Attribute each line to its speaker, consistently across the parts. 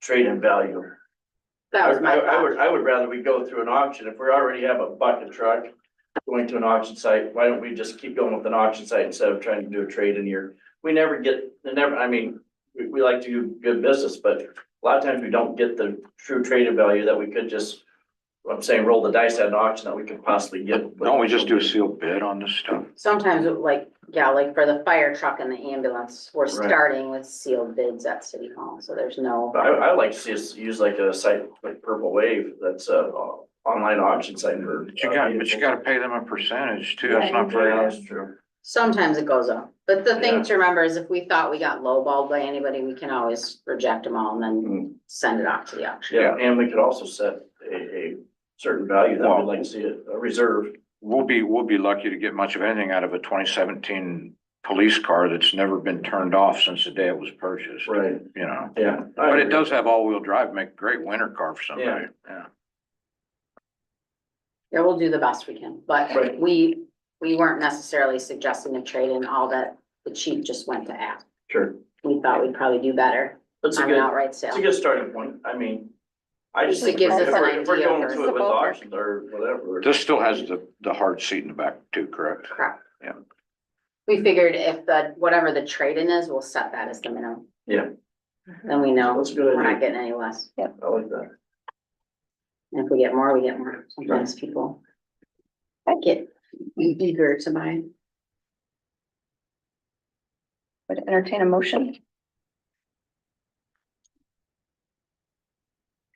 Speaker 1: trade-in value.
Speaker 2: That was my
Speaker 1: I- I
Speaker 2: thought.
Speaker 1: would, I would rather we go through an auction. If we already have a bucket truck going to an auction site, why don't we just keep going with an auction site instead of trying to do a trade in here? We never get, they never, I mean, we, we like to do good business, but a lot of times we don't get the true trade in value that we could just, I'm saying, roll the dice at an auction that we could possibly get.
Speaker 3: Don't we just do a sealed bid on this stuff?
Speaker 2: Sometimes it like, yeah, like for the fire truck and the ambulance, we're starting with sealed bids at city hall, so there's no.
Speaker 1: But I, I like to see us use like a site like Purple Wave, that's a uh, online auction site for. uh,
Speaker 3: But you got, but you gotta pay them a percentage too, that's not
Speaker 1: Yeah,
Speaker 3: fair.
Speaker 1: That's true.
Speaker 2: Sometimes it goes up, but the
Speaker 3: Yeah.
Speaker 2: thing to remember is if we thought we got lowballed by anybody, we can always reject them all and
Speaker 3: Mm-hmm.
Speaker 1: Mm.
Speaker 2: then send it off to the auction.
Speaker 1: Yeah, and we could also set a, a certain value that
Speaker 3: Well-
Speaker 1: we'd like to see it, a reserve.
Speaker 3: We'll be, we'll be lucky to get much of anything out of a twenty seventeen police car that's never been turned off since the day it was purchased,
Speaker 1: Right.
Speaker 3: you know?
Speaker 1: Yeah.
Speaker 3: But it does have all-wheel drive, make a great winter car for somebody, yeah.
Speaker 2: Yeah, we'll do the best we can, but
Speaker 1: Right.
Speaker 2: we, we weren't necessarily suggesting a trade in all that the chief just went to ask.
Speaker 1: Sure.
Speaker 2: We thought we'd probably do better
Speaker 1: That's a
Speaker 2: on an
Speaker 1: good,
Speaker 2: outright
Speaker 1: it's a
Speaker 2: sale.
Speaker 1: good starting point. I mean, I just
Speaker 2: It
Speaker 1: think if
Speaker 2: gives
Speaker 1: we're,
Speaker 2: us an
Speaker 1: if we're
Speaker 2: idea
Speaker 1: going
Speaker 2: for-
Speaker 1: to it with auctions or whatever.
Speaker 3: This still has the, the hard seat in the back too, correct?
Speaker 2: Correct.
Speaker 3: Yeah.
Speaker 2: We figured if the, whatever the trade in is, we'll set that as the minimum.
Speaker 1: Yeah.
Speaker 2: Then we know
Speaker 1: That's a good
Speaker 2: we're
Speaker 1: idea.
Speaker 2: not getting any less.
Speaker 1: I like that.
Speaker 2: And if we get more, we get more. Sometimes people. I get eager to buy.
Speaker 4: Would entertain a motion.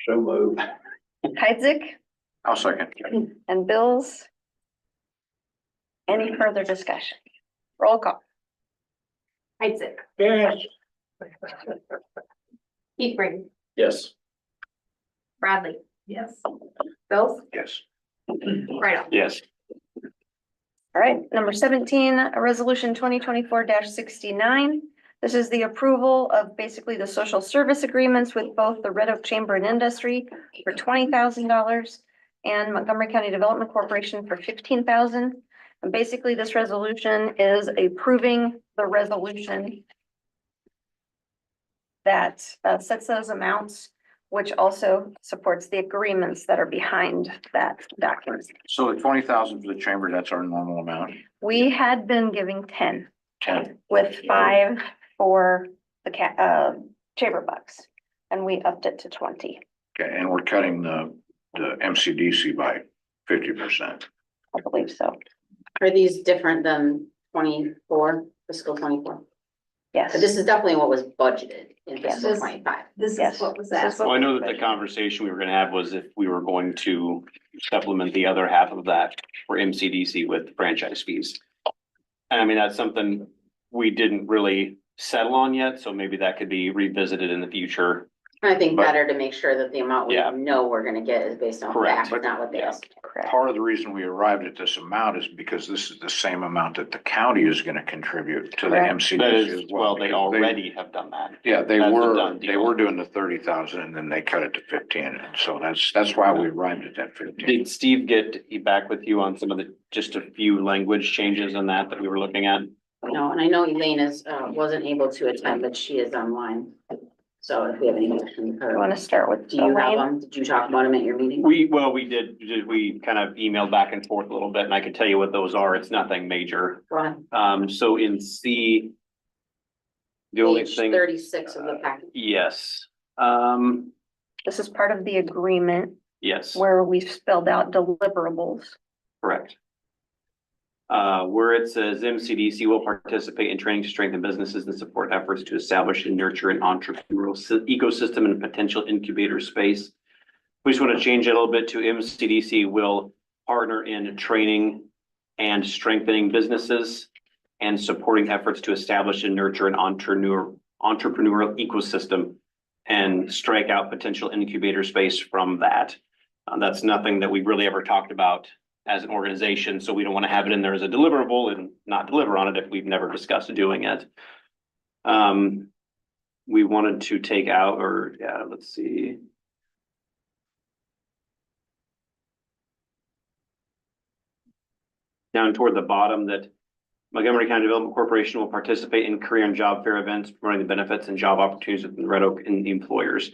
Speaker 1: So move.
Speaker 4: Heidzik
Speaker 3: I'll second.
Speaker 4: and Bills. Any further discussion? Roll call.
Speaker 5: Isaac. Keith Ring,
Speaker 1: Yes.
Speaker 5: Bradley. Yes. Bills,
Speaker 3: Yes.
Speaker 5: right off.
Speaker 3: Yes.
Speaker 4: All right, number seventeen, a resolution twenty twenty-four sixty-nine. This is the approval of basically the social service agreements with both the Red Oak Chamber and Industry for twenty thousand dollars and Montgomery County Development Corporation for fifteen thousand. dollars And basically, this resolution is approving the resolution that uh, sets those amounts, which also supports the agreements that are behind that document.
Speaker 3: So the twenty thousand for the chamber, that's our normal amount,
Speaker 4: We had been giving ten
Speaker 3: ten,
Speaker 4: with five for the ca- uh, chamber bucks. And we upped it to twenty,
Speaker 3: okay, and we're cutting the, the MCDC by fifty percent.
Speaker 4: I believe so,
Speaker 2: Are these different than twenty-four, fiscal twenty-four?
Speaker 4: yes.
Speaker 2: But this is definitely what was budgeted in fiscal
Speaker 5: Yes.
Speaker 2: twenty-five.
Speaker 5: This
Speaker 4: Yes.
Speaker 5: is what was
Speaker 4: This is
Speaker 5: asked.
Speaker 4: what
Speaker 6: Well, I know
Speaker 4: was
Speaker 6: that the
Speaker 4: budgeted.
Speaker 6: conversation we were gonna have was if we were going to supplement the other half of that for MCDC with franchise fees. And I mean, that's something we didn't really settle on yet, so maybe that could be revisited in the future.
Speaker 2: I think
Speaker 3: But-
Speaker 2: better to make sure that the amount we
Speaker 6: Yeah.
Speaker 2: know we're gonna get is based on
Speaker 6: Correct.
Speaker 2: fact, not what they
Speaker 6: Yeah.
Speaker 2: asked.
Speaker 4: Correct,
Speaker 3: Part of the reason we arrived at this amount is because this is the same amount that the county is gonna contribute to the
Speaker 4: Correct.
Speaker 6: That
Speaker 3: MCDC
Speaker 6: is,
Speaker 3: as well.
Speaker 6: well, they
Speaker 3: because
Speaker 6: already have done that.
Speaker 3: Yeah, they
Speaker 6: That's a
Speaker 3: were,
Speaker 6: done
Speaker 3: they
Speaker 6: deal.
Speaker 3: were doing the thirty thousand and then they cut it to fifteen, and so that's, that's why we arrived at that fifteen.
Speaker 6: Did Steve get back with you on some of the, just a few language changes in that that we were looking at?
Speaker 2: No, and I know Elaine is, uh, wasn't able to attend, but she is online. So if we have any questions,
Speaker 4: you wanna start with
Speaker 2: do you have
Speaker 4: Elaine?
Speaker 2: them? Did you talk about them at your meeting?
Speaker 6: We, well, we did, did- we kind of emailed back and forth a little bit, and I can tell you what those are. It's nothing major.
Speaker 2: Go ahead.
Speaker 6: Um, so in C. The only
Speaker 2: Page
Speaker 6: thing, uh,
Speaker 2: Thirty-six of the packet.
Speaker 6: yes, um,
Speaker 4: This is part of the agreement
Speaker 6: yes,
Speaker 4: where we spelled out deliverables.
Speaker 6: correct. Uh, where it says MCDC will participate in training to strengthen businesses and support efforts to establish and nurture an entrepreneurial sy- ecosystem and potential incubator space. We just want to change it a little bit to MCDC will partner in training and strengthening businesses and supporting efforts to establish and nurture an entrepreneur, entrepreneurial ecosystem and strike out potential incubator space from that. Uh, that's nothing that we really ever talked about as an organization, so we don't want to have it in there as a deliverable and not deliver on it if we've never discussed doing it. Um, we wanted to take out, or, yeah, let's see. Down toward the bottom that Montgomery County Development Corporation will participate in career and job fair events, promoting the benefits and job opportunities within Red Oak and employers.